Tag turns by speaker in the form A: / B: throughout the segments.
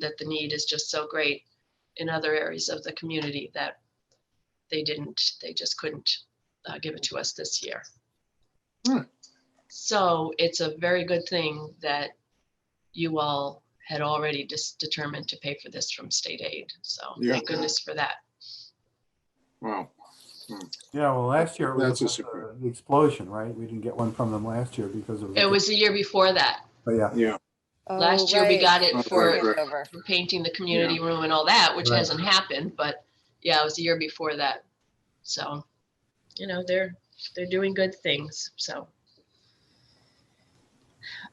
A: that the need is just so great in other areas of the community that they didn't, they just couldn't uh, give it to us this year.
B: Hmm.
A: So it's a very good thing that you all had already just determined to pay for this from state aid. So
B: Yeah.
A: thank goodness for that.
B: Wow.
C: Yeah, well, last year it was
B: That's a
C: about
B: surprise.
C: the- the explosion, right? We didn't get one from them last year because of.
A: It was the year before that.
C: But yeah,
B: Yeah.
A: Last
D: Oh,
A: year we got it
B: Right,
A: for
B: right.
A: for painting the community room and all that, which
C: Right.
A: hasn't happened, but yeah, it was the year before that. So, you know, they're, they're doing good things, so.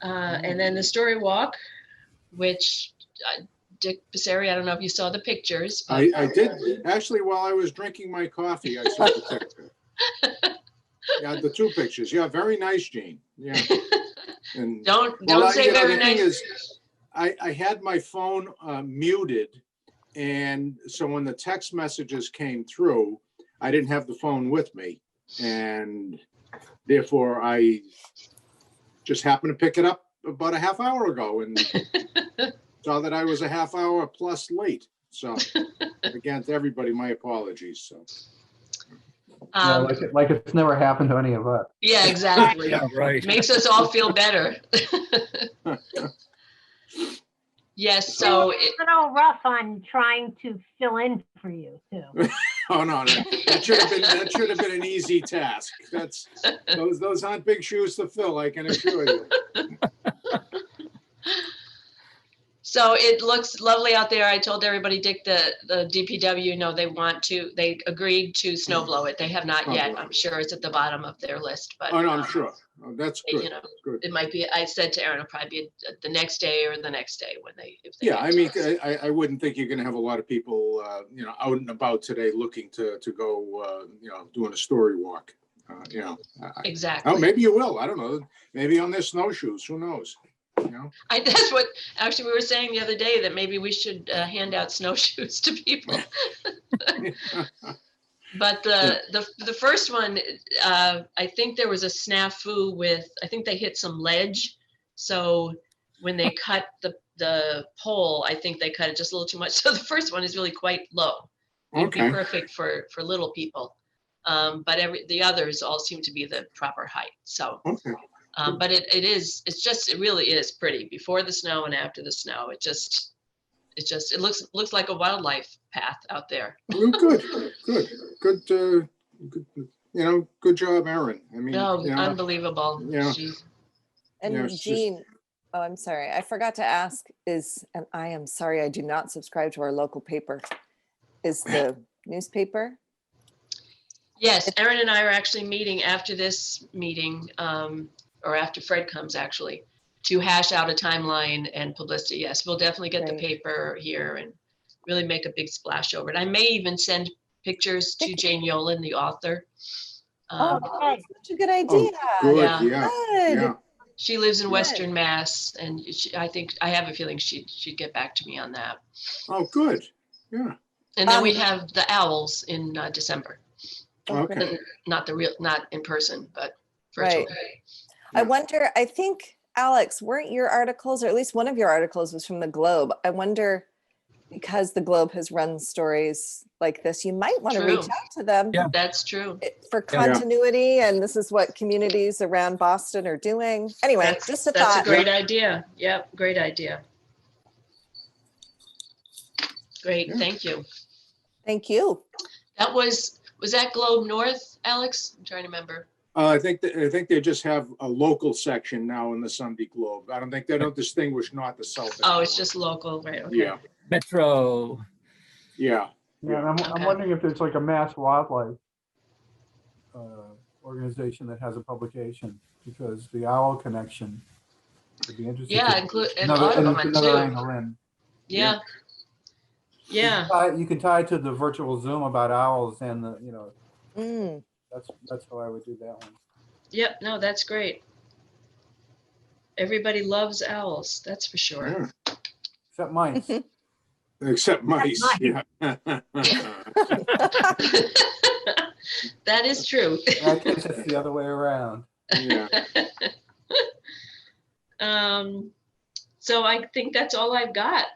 A: Uh, and then the story walk, which uh, Dick Passeri, I don't know if you saw the pictures, but
B: I, I did, actually, while I was drinking my coffee, I saw the picture. Yeah, the two pictures. Yeah, very nice, Gene. Yeah. And
A: don't,
B: Well, I-
A: don't say
B: you know,
A: very
B: the thing
A: nice.
B: is, I, I had my phone uh, muted, and so when the text messages came through, I didn't have the phone with me, and therefore I just happened to pick it up about a half hour ago and saw that I was a half hour plus late. So again, to everybody, my apologies. So
C: Yeah,
A: Um,
C: like, it- like it's never happened to any of us.
A: yeah, exactly.
E: Yeah, right.
A: Makes us all feel better. Yes, so it,
F: A little rough on trying to fill in for you too.
B: oh no, no, that should have been that should have been an easy task. That's those those aren't big shoes to fill. I can assure you.
A: So it looks lovely out there. I told everybody, Dick, the, the DPW, no, they want to, they agreed to snow blow it. They have not
B: Oh,
A: yet.
B: wow.
A: I'm sure it's at the bottom of their list, but.
B: Oh, no, I'm
A: um,
B: sure. Oh, That's
A: they- You
B: good.
A: know,
B: good.
A: it might be, I said to Aaron, it'll probably be the next day or the next day when they. if they
B: Yeah,
A: get
B: I
A: to
B: mean, uh,
A: us.
B: I, I- I wouldn't think you're gonna have a lot of people, uh, you know, out and about today looking to, to go, uh, you know, doing a story walk. uh, You know, I- I- oh,
A: Exactly.
B: maybe you will. I don't know. Maybe on their snowshoes, who knows? You know,
A: I, that's what, actually, we were saying the other day that maybe we should uh, hand out snowshoes to people. But the, the, the first one, uh, I think there was a snafu with, I think they hit some ledge. So when they cut the, the pole, I think they cut it just a little too much. So the first one is really quite low. It'd be
B: Okay,
A: perfect for, for little people. Um, but every, the others all seem to be the proper height. So,
B: okay.
A: um, but it, it is, it's just, it really is pretty before the snow and after the snow. It just, it just, it looks, looks like a wildlife path out there.
B: Well, Good, good, good, uh, good, you know, good job, Aaron. I mean,
A: No,
B: you know,
A: unbelievable.
B: Mm, yeah.
A: She-
B: Yeah,
D: And
B: it's just-
D: Jean, oh, I'm sorry, I forgot to ask is, and I am sorry, I do not subscribe to our local paper. Is the newspaper?
A: Yes, Erin and I are actually meeting after this meeting, um, or after Fred comes actually, to hash out a timeline and publicity. Yes, we'll definitely get the
D: Great.
A: paper here and really make a big splash over it. I may even send pictures to Jane Yolen, the author.
D: Oh,
A: Um,
F: Okay.
D: that's Such a good idea.
B: good,
A: Yeah.
B: Oh, yeah,
D: Good.
B: yeah.
A: She lives in
D: Good.
A: Western Mass and she, I think, I have a feeling she'd, she'd get back to me on that.
B: Oh, good, yeah,
A: And then
D: Um,
A: we have the owls in uh, December,
B: okay.
A: not the real, not in person, but virtual.
D: Right. I wonder, I think, Alex, weren't your articles, or at least one of your articles was from the Globe. I wonder, because the Globe has run stories like this, you might want to reach
A: True.
D: out to them.
E: Yeah.
A: That's true.
D: it- for
E: Yeah. Yeah.
D: continuity and this is what communities around Boston are doing. Anyway,
A: That's-
D: just a
A: That's a
D: thought.
A: great idea. Yep, great idea. Great,
B: Yeah.
D: Mm.
A: thank you.
D: Thank you.
A: That was, was that Globe North, Alex? I'm trying to remember.
B: Uh, I think, that- I think they just have a local section now in the Sunday Globe. I don't think, they don't distinguish north to south.
A: Oh, it's
B: anymore.
A: just local, right? okay.
B: Yeah,
E: Metro.
B: yeah.
C: Yeah, and I'm,
A: Okay.
C: I'm wondering if there's like a mass wildlife uh, organization that has a publication, because the owl connection would be interesting.
A: Yeah,
C: to-
A: include, and
C: another- and
A: Audubon
C: another
A: too.
C: angle in.
A: Yeah.
C: You can
A: Yeah,
C: tie- You can tie it to the virtual Zoom about owls and the, you know,
D: Mm,
C: that's, that's how I would do that one.
A: yep, no, that's great. Everybody loves owls, that's for sure.
B: Yeah.
C: Except mice.
B: Except mice, yeah.
A: That is true.
C: I guess it's the other way around.
B: Yeah.
A: Um, so I think that's all I've got